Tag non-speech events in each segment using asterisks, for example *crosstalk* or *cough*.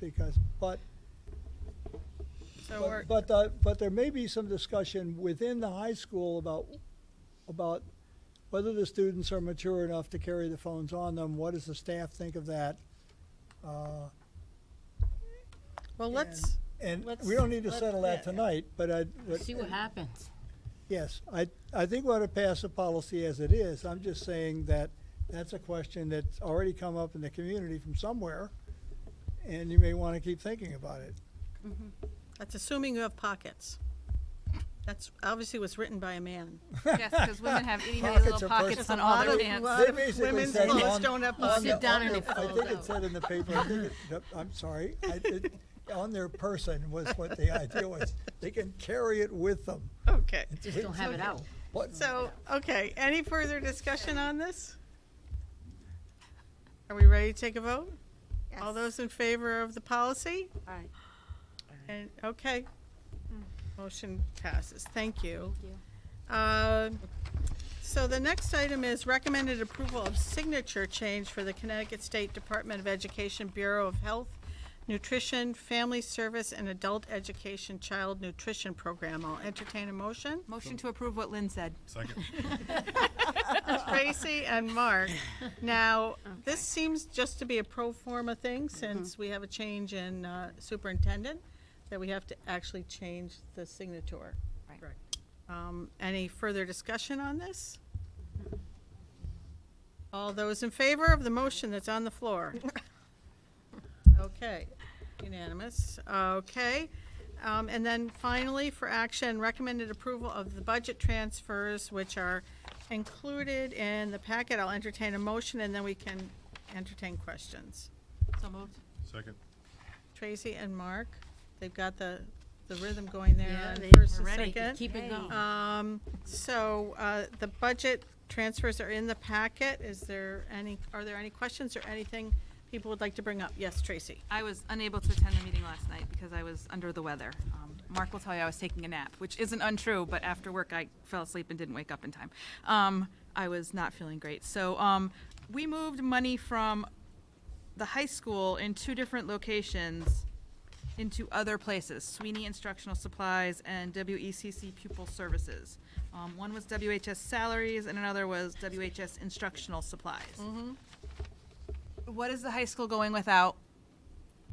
because, but, but- So we're, but, uh, but there may be some discussion within the high school about, about whether the students are mature enough to carry the phones on them, what does the staff think of that? Uh, well, let's, And Let's- we don't need to let- settle that yeah, yeah. tonight, but I, but- See what happens. yes, I, I think we ought to pass the policy as it is. I'm just saying that that's a question that's already come up in the community from somewhere, and you may want to keep thinking about it. that's assuming you have pockets. That's obviously was written by a man. Yes, because women have itty bitty Pockets little are pockets personal. on A all lot their of- pants. lot They of basically women's said clothes on- don't have on pockets. the- Sit down on and the- it I folds think it out. said in the paper, I think it- *laughs* yep, I'm sorry, I, it, on their person was what the idea was. They can carry it with them. Okay, Just don't have it out. What, so, okay, any further discussion on this? Are we ready to take a vote? All those in favor of the policy? Aye. And, okay. Motion passes. Thank you. Thank Uh, So the next item is recommended approval of signature change for the Connecticut State Department of Education Bureau of Health, Nutrition, Family Service, and Adult Education Child Nutrition Program. I'll entertain a motion. Motion to approve what Lynn said. Second. Tracy and Mark. Now, this seems just to be a pro forma thing since we have a change in uh, superintendent, that we have to actually change the signature. Right. Um, Any further discussion on this? All those in favor of the motion that's on the floor? Okay, unanimous, okay. Um, And then finally, for action, recommended approval of the budget transfers, which are included in the packet. I'll entertain a motion, and then we can entertain questions. So moved. Second. Tracy and Mark, they've got the, the rhythm going there Yeah, on they first were and ready. second. Keep it going. Um, so, uh, the budget transfers are in the packet. Is there any, are there any questions or anything people would like to bring up? Yes, Tracy. I was unable to attend the meeting last night because I was under the weather. Um, Mark will tell you I was taking a nap, which isn't untrue, but after work I fell asleep and didn't wake up in time. Um, I was not feeling great. So um, we moved money from the high school in two different locations into other places Sweeney Instructional Supplies and WECC Pupil Services. Um, one was WHS Salaries and another was WHS Instructional Supplies. Mm-hmm. What is the high school going without?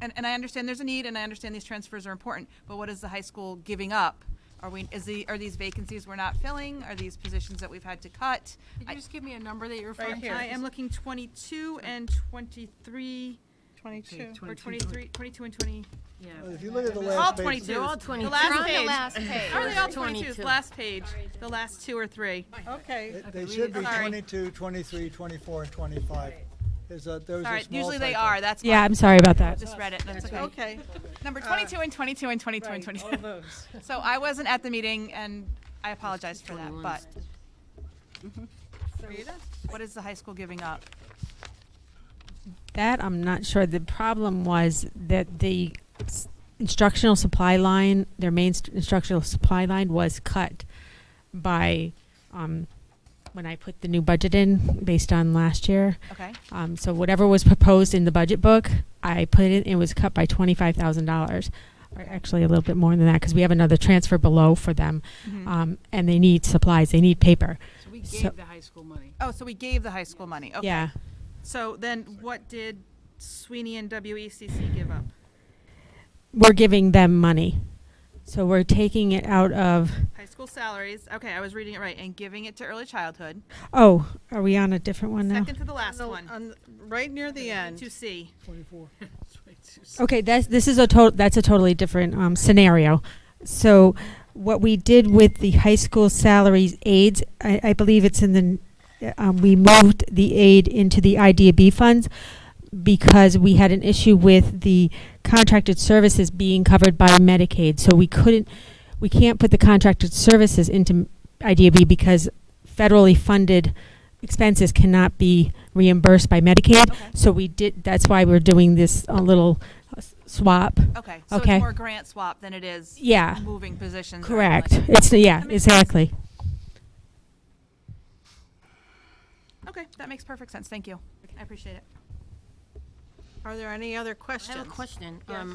And, and I understand there's a need, and I understand these transfers are important, but what is the high school giving up? Are we, is the, are these vacancies we're not filling? Are these positions that we've had to cut? Did I- you just give me a number that you're referring referring to? to? here. I am looking twenty-two and twenty-three, Twenty-two. or 23, 22 and twenty. if you look at the All last page, 22s. They're all The 22s. last They're on the page. last page. Are they all 22? 22s? Last page. The last two or three. Okay, they- they should be Sorry. 22, 23, 24, and twenty-five. There's a, there's a small Sorry, usually they typo. are. That's Yeah, why. I'm sorry about I that. just read it. That's okay. Uh, okay. Number 22 and 22 and 22 and 22. So I wasn't at the meeting and I apologize for that, but Rita? what is the high school giving up? That I'm not sure. The problem was that the s- instructional supply line, their main st- instructional supply line was cut by, um, when I put the new budget in based on last year. Okay. Um, so whatever was proposed in the budget book, I put it, it was cut by twenty-five thousand dollars. Or actually a little bit more than that, cause we have another transfer below for them. Mm-hmm. Um, and they need supplies, they need paper. So we So- gave the high school money. *laughs* Oh, so we gave the high school money. Okay. Yeah. So then what did Sweeney and WECC give up? we're giving them money. So we're taking it out of, High school salaries. Okay, I was reading it right. And giving it to early childhood. oh, are we on a different one now? Second to the last So, one. on- Right near uh, the end. To C. Twenty-four. Okay, that's, this is a total, that's a totally different um, scenario. So what we did with the high school salaries aids, I, I believe it's in the, uh, um, we moved the aid into the IDB funds because we had an issue with the contracted services being covered by Medicaid. So we couldn't, we can't put the contracted services into IDB because federally funded expenses cannot be reimbursed by Medicaid. Okay. So we did, that's why we're doing this a little uh, s- swap. Okay. So Okay. it's more grant swap than it is Yeah, moving positions. or anything like correct. It's, yeah, That makes sense. exactly. Okay, that makes perfect sense. Thank you. I appreciate it. Are there any other questions? I have a question. Yes. Um,